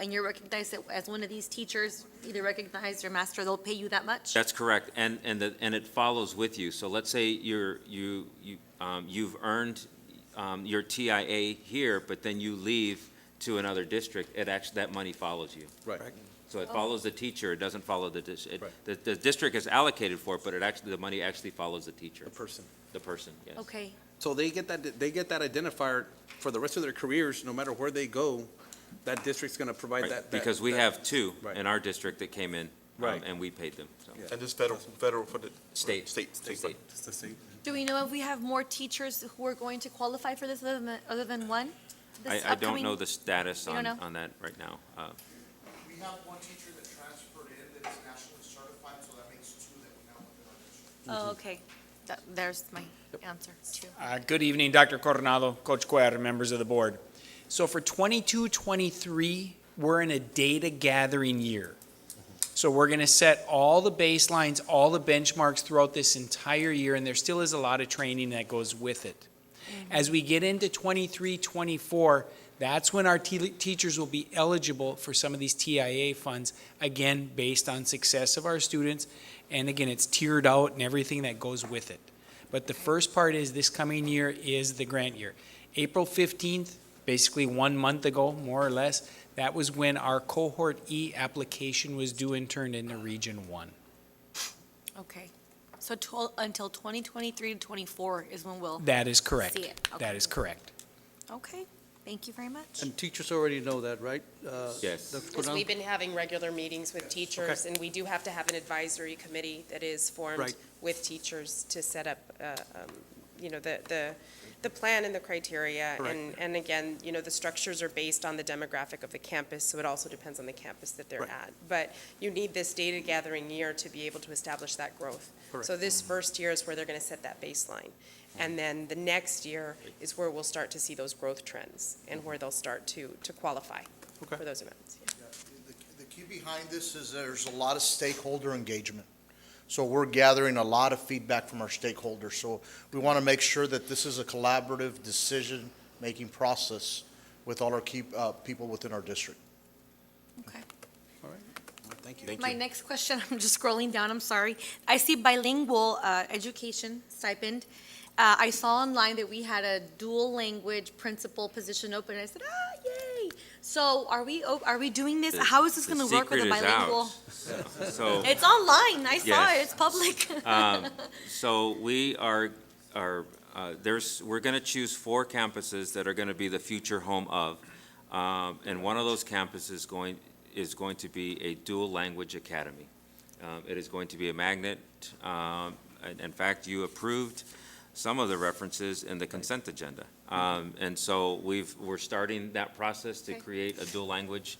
and you're recognized as one of these teachers, either recognized or master, they'll pay you that much? That's correct, and, and, the- and it follows with you. So let's say you're, you, you, um, you've earned um, your TIA here, but then you leave to another district, it actually, that money follows you. Right. So Oh. it follows the teacher, it doesn't follow the, dis- it- Right. the, the district is allocated for it, but it actually, the money actually follows the teacher, The person. the person, yes. Okay, So they get that, they get that identifier for the rest of their careers, no matter where they go, that district's gonna provide Right, that. that- Because we that- have two Right. in our district that came in, um, Right. and we paid them, so. Yeah. And this federal, federal for the? State. State. State. It's the same. do we know if we have more teachers who are going to qualify for this other than, other than one? This I, I don't upcoming- know the status You don't on, know? on that right now. Uh, We have one teacher that transferred in that is nationally certified, so that makes two that we now have in Mm-hmm. our district. Oh, okay, that, there's my answer, too. Uh, Good evening, Dr. Coronado, Coach Cuellar, members of the board. So for 22, 23, we're in a data gathering year. So we're going to set all the baselines, all the benchmarks throughout this entire year, and there still is a lot of training that goes with it. As we get into 23, 24, that's when our te- teachers will be eligible for some of these TIA funds, again, based on success of our students. And again, it's tiered out and everything that goes with it. But the first part is this coming year is the grant year. April 15th, basically one month ago, more or less, that was when our Cohort E application was due and turned into Region 1. Okay, so tw- until 2023 to 24 is when we'll, That is correct. See it, okay. That is correct. okay, thank you very much. And teachers already know that, right? Uh, Yes. Dr. Because Cordano? we've been having regular meetings with teachers, and we do have to have an advisory committee that is formed Right. with teachers to set up, uh, um, you know, the, the, the plan and the criteria. And, and again, you know, the structures are based on the demographic of the campus, so it also depends on the campus that they're Right. at. But you need this data gathering year to be able to establish that growth. So Correct. Mm-hmm. this first year is where they're going to set that baseline. And then the next year is where we'll start to see those growth trends and where they'll start to, to qualify Okay. for those amounts. The- The key behind this is there's a lot of stakeholder engagement. So we're gathering a lot of feedback from our stakeholders. So we want to make sure that this is a collaborative decision-making process with all our key, uh, people within our district. Okay. Thank you. My next question, I'm just scrolling down, I'm sorry. I see bilingual uh, education stipend. Uh, I saw online that we had a dual language principal position open, and I said, ah, yay! So are we, o- are we doing this? the- How is this going to work with a secret is out. bilingual? So. It's online, I saw it, Yes. it's public. Um, So we are, are, uh, there's, we're going to choose four campuses that are going to be the future home of. Um, And one of those campuses going, is going to be a dual language academy. Um, It is going to be a magnet. Um, and In fact, you approved some of the references in the consent agenda. Um, And so we've, we're starting that process to Okay. create a dual language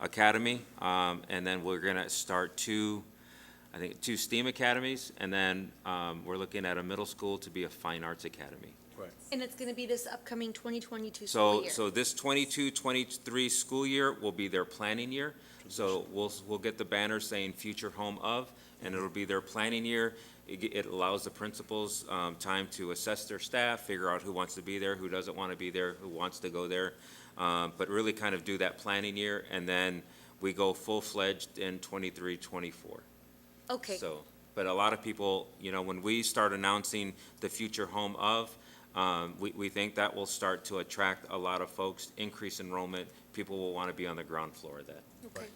academy. Um, And then we're going to start two I think, two STEAM academies, and then um, we're looking at a middle school to be a fine arts academy. And it's going to be this upcoming 2022 school So, year. so this 22-23 school year will be their planning year. So we'll, we'll get the banner saying "Future Home of," and it'll be their planning year. It, ge- it allows the principals um, time to assess their staff, figure out who wants to be there, who doesn't want to be there, who wants to go there, um, but really kind of do that planning year, and then we go full-fledged in 23-24. Okay, So, but a lot of people, you know, when we start announcing the future home of, um, we, we think that will start to attract a lot of folks, increase enrollment, people will want to be on the ground floor of that. okay.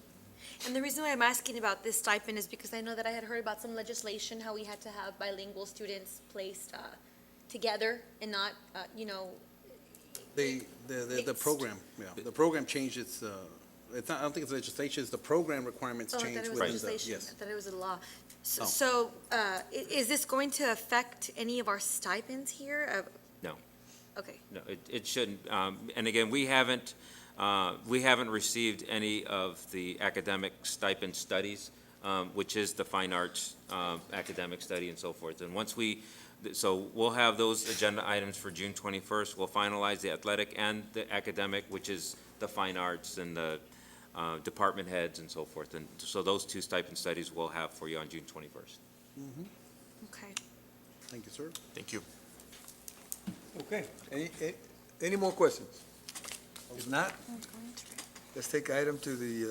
And the reason why I'm asking about this stipend is because I know that I had heard about some legislation, how we had to have bilingual students placed uh, together and not, uh, you know, They, the, the, the Mixed. program, yeah, the program changed its, uh, it's not, I don't think it's legislation, it's the program requirements Oh, I thought changed it was within the, legislation. yes. Oh. I thought it was a law. So- No. So, uh, i- is this going to affect any of our stipends here? Uh, No. Okay, No, it, it shouldn't. Um, and again, we haven't, uh, we haven't received any of the academic stipend studies, um, which is the fine arts, um, academic study and so forth. And once we, th- so we'll have those agenda items for June twenty-first. We'll finalize the athletic and the academic, which is the fine arts and the, uh, department heads and so forth. And so those two stipend studies we'll have for you on June twenty-first. okay. Thank you, sir. Thank you. Okay. Any, a- any more questions? If not, Let's take item to the uh,